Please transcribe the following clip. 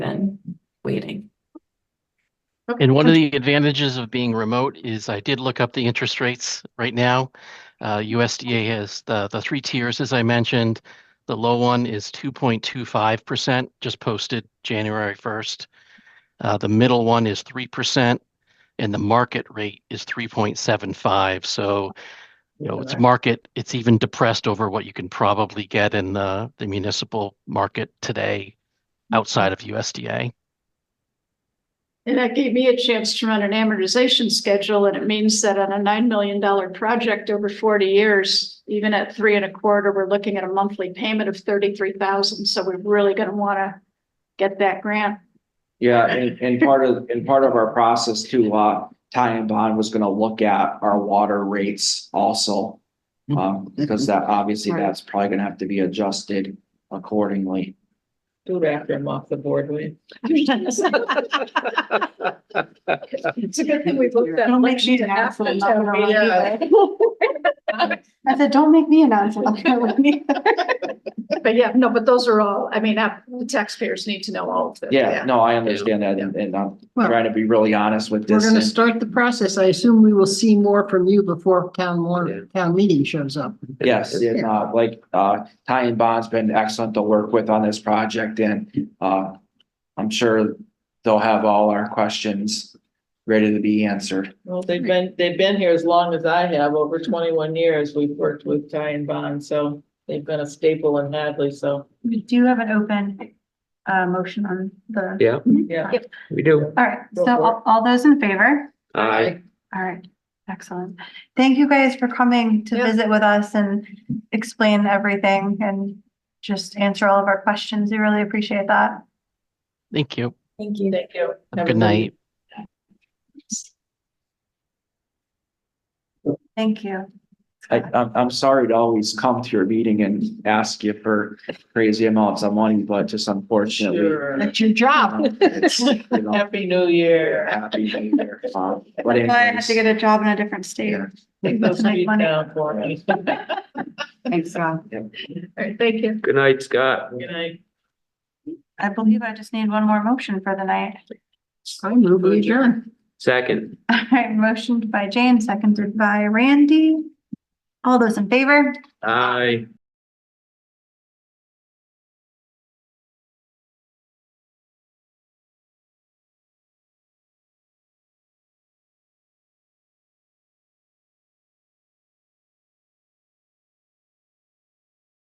waiting. And one of the advantages of being remote is I did look up the interest rates right now. Uh, USDA has the, the three tiers, as I mentioned. The low one is two point two five percent, just posted January first. Uh, the middle one is three percent and the market rate is three point seven five. So, you know, it's Right. market, it's even depressed over what you can probably get in the, the municipal market today Mm-hmm. outside of USDA. And that gave me a chance to run an amortization schedule, and it means that on a nine million dollar project over forty years, even at three and a quarter, we're looking at a monthly payment of thirty-three thousand, so we're really gonna wanna get that grant. Yeah, and, and part of, and part of our process too, uh, Ty and Bond was gonna look at our water rates also. Um, because that, obviously, that's probably gonna have to be adjusted accordingly. Do wrap them off the board, will you? It's a good thing we looked at- Don't make me an After asshole. town meeting. I said, don't make me an asshole. But yeah, no, but those are all, I mean, uh, the taxpayers need to know all of this. Yeah, no, I understand that, and, and I'm Well- trying to be really honest with We're this. gonna and- start the process. I assume we will see more from you before town more town meeting shows up. Yes, and uh, like, uh, Ty and Bond's been excellent to work with on this project and, uh, I'm sure they'll have all our questions ready to be answered. Well, they've been, they've been here as long as I have, over twenty-one years, we've worked with Ty and Bond, so they've been a staple in Hadley, so, We do have an open uh motion on the. Yeah, yeah. we do. All right, Go Mhm. so for all, all those in favor? I, All right, excellent. Thank you guys for coming to Yeah. visit with us and explain everything and just answer all of our questions. We really appreciate that. Thank you. Thank you. Thank you. Have a Good night. Thank you. I, I'm, I'm sorry to always come to your meeting and ask you for crazy amounts of money, but just unfortunately. Sure. That's your job. um, it's, you know, Happy New Year. Happy New Year. Um, But That's why I had to anyways, get a job in a different state. Yeah. Take those Like feet money. down for me. Good Thanks, Rob. All right, thank you. good night, Scott. night. I believe I just need one more motion for the night. I move we adjourn. Second, All right, motioned by Jane, seconded by Randy. All those in favor? I.